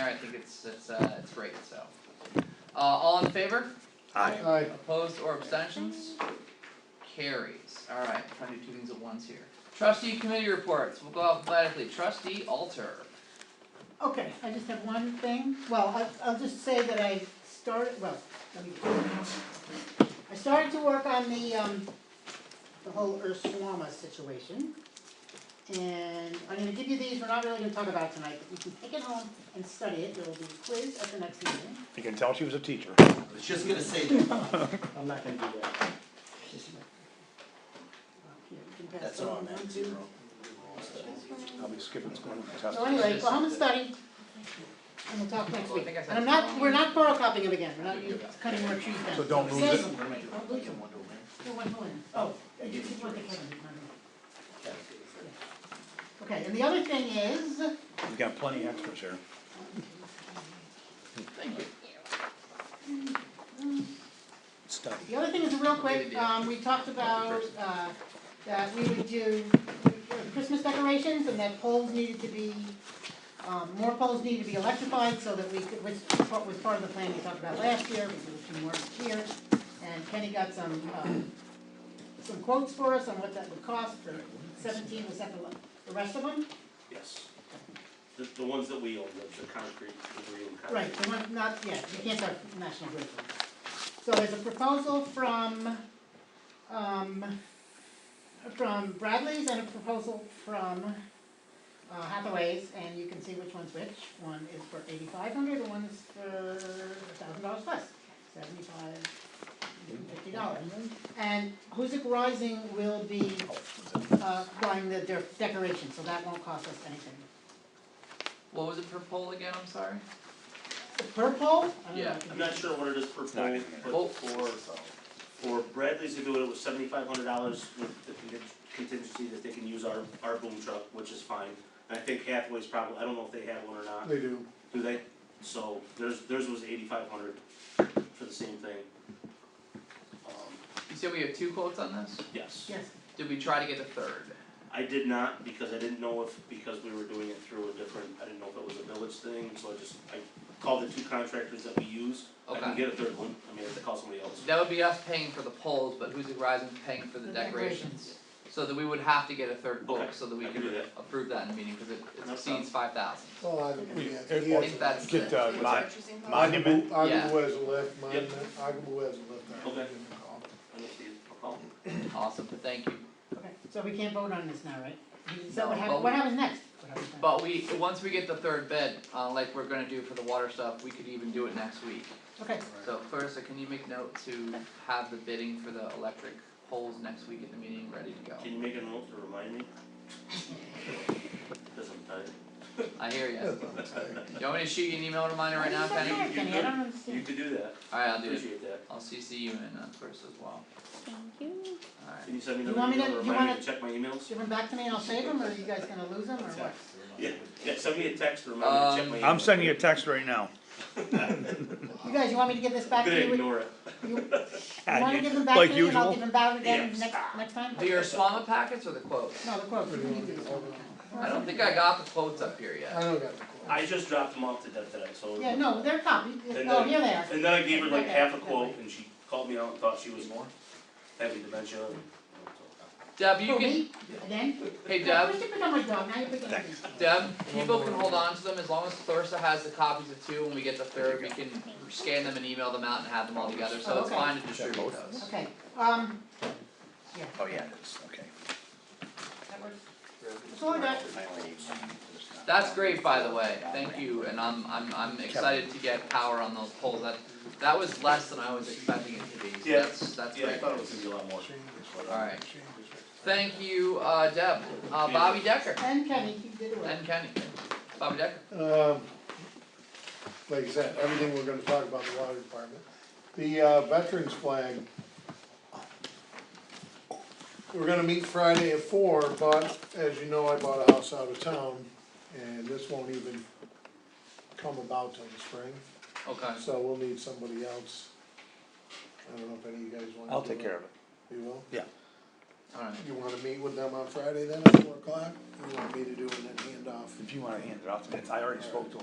I think it's it's uh it's great, so. Uh all in favor? Aye. Aye. Opposed or abstentions? Carries, alright, trying to do two things at once here. Trustee committee reports, we'll go alphabetically, trustee Alter. Okay, I just have one thing, well, I, I'll just say that I started, well, let me. I started to work on the, um, the whole Urswama situation. And I'm gonna give you these, we're not really gonna talk about it tonight, but you can take it home and study it, there will be a quiz at the next meeting. You can tell she was a teacher. I was just gonna say that. I'm not gonna do that. Here, you can pass That's it all on, I'm at, one, zero. two. I'll be skipping school and So testing. anyway, go home and study, and we'll talk next Well, I week. think I said And I'm not, wrong. we're not borrow copying it again, we're not cutting more trees down. So don't lose Say- it. Don't lose them. No, one more. Oh, you can keep one, Kevin, remember. Okay, and the other thing is, We've got plenty extras here. Thank you. Study. the other thing is real quick, Good idea. um, we talked about, uh, that we would do uh, Christmas decorations and that poles needed to be, um, more poles needed to be electrified so that we could, which part- was part of the plan we talked about last year, we do a few more this year. And Kenny got some, um, some quotes for us on what that would cost for seventeen, was that the, the rest of them? Yes. The, the ones that we own, the, the concrete, the green concrete. Right, the one, not, yeah, you can't start National Grid. from that. So there's a proposal from, um, from Bradley's and a proposal from uh, Hathaway's, and you can see which one's which. One is for eighty-five hundred, and one is for a thousand dollars plus, seventy-five, fifty dollars. And Hoosick Rising will be, uh, buying the de- decoration, so that won't cost us anything. What was it per poll again, I'm sorry? Purple, I don't know. Yeah, I'm not sure what it is per not pole, in there. but for, for Bradley's to do it, it was seventy-five hundred dollars with the contin- contingency that they can use our, our boom truck, which is fine. And I think Hathaway's probably, I don't know if they have one or not, They do. do they? So theirs, theirs was eighty-five hundred for the same thing. Um, you said we have two quotes on this? yes. Yes, Did we try to get a third? I did not, because I didn't know if, because we were doing it through a different, I didn't know if it was a village thing, so I just, I called the two contractors that we use. I can Okay. get a third one, I mean, I have to call somebody else. That would be us paying for the poles, but Hoosick Rising paying for the The decorations. decorations. So that we would have to get a third Okay, quote so that we I can could do that. approve that in the meeting, cause it it No exceeds five thousand. Well, I, yeah, he Or has. If that's Get, the- uh, Is that mon- what you're saying? monument, I Yeah. will as a left, mine, Yep. I will as a left, I will give Okay. him a call. I don't see it. I'll call them. Awesome, thank you. okay, so we can't vote on this now, right? Is that what No, happens, but what we- happens next? What happens next? But we, once we get the third bid, uh like we're gonna do for the water stuff, we could even do it next week. Okay, So Clarissa, can you make note to have the bidding for the electric poles next week at the meeting ready to go? Can you make a note to remind me? Cause I'm tired. I hear ya. Do you want me to shoot you an email reminder right now, Penny? Why Alright, does that matter, Kenny? I don't You understand. could do that, I'll do it. appreciate that. I'll CC you and uh Clarissa as well. Thank Can you. you send me You another want me email to- to you remind me wanna- to check my emails? Give them back to me and I'll save them, or are you guys gonna lose them, or what? Yeah, yeah, send me a text to remind me to Um, check my emails. I'm sending you a text right now. You guys, you want me to give this I'm back gonna to you? with- ignore it. You you wanna give them back Like to me and I'll usual. give them back again Yes. next, next time? Alright, do your Swama packets or the quotes? No, the quotes, we can do this one. I don't think I got the quotes up here I yet. don't got the call. I just dropped them off to death today, so. Yeah, no, they're copied, And oh, then- here they are. And then I gave her like Okay, half a never quote mind. and she called me out and thought she was having dementia. Deb, you For can, me, again? hey I Deb, wish you pick up my dog, now you pick up me. Thanks. Deb, people can hold on to them as long as Clarissa has the copies of two, when we get the third, we can scan them and email them out and have them all together, so it's Okay. fine to distribute those. Okay, um, yeah, Oh, yeah, it is, okay. that works. That's all I got. I only need one. That's great, by the way, thank you, and I'm I'm I'm excited to get power on those poles, that that was less than I was expecting it to be, so Yeah. that's that's Yeah, I great. thought it was gonna be a lot more. Alright, thank you, uh Deb, uh Bobby Decker And Kenny, he did it well. and Kenny, Bobby Decker. Um, like I said, everything we're gonna talk about the water department. The uh, veterans flag. We're gonna meet Friday at four, but as you know, I bought a house out of town and this won't even come about till the spring, Okay, so we'll need somebody else. I don't know if any of you guys want to. I'll take care of it. You will? alright, You wanna meet with them on Friday then at four o'clock? You want me to do it and then hand off? If you wanna hand it off to me, I already spoke to him.